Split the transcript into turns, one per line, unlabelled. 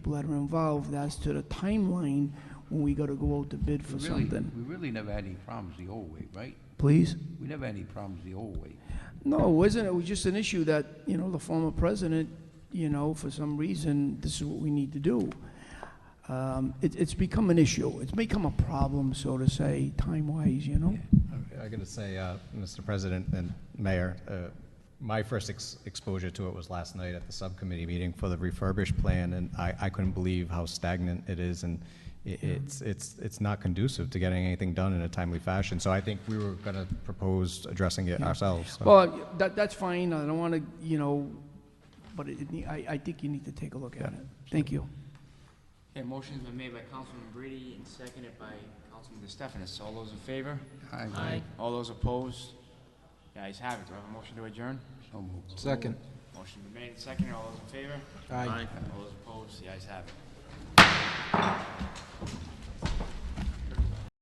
people that are involved as to the timeline when we gotta go out to bid for
We really-
something.
We really never had any problems the old way, right?
Please?
We never had any problems the old way.
No, it wasn't. It was just an issue that, you know, the former president, you know, for some reason, this is what we need to do. Um, it, it's become an issue. It's become a problem, so to say, time-wise, you know?
I gotta say, uh, Mr. President and Mayor, uh, my first ex- exposure to it was last night at the subcommittee meeting for the refurbished plan, and I, I couldn't believe how stagnant it is, and i- it's, it's, it's not conducive to getting anything done in a timely fashion, so I think we were gonna propose addressing it ourselves. so.
Well, that, that's fine. I don't want to, you know, but it, it- I, I think you need to take a look at it. Thank you.
Okay, motion's been made by Councilman Brady and seconded by Councilman DeStefanis. All those in favor?
Aye.
All those opposed? The ayes have it. Do I have a motion to adjourn?
So moved.
Second.
Motion been made and seconded. All those in favor?
Aye.
All those opposed? The ayes have it.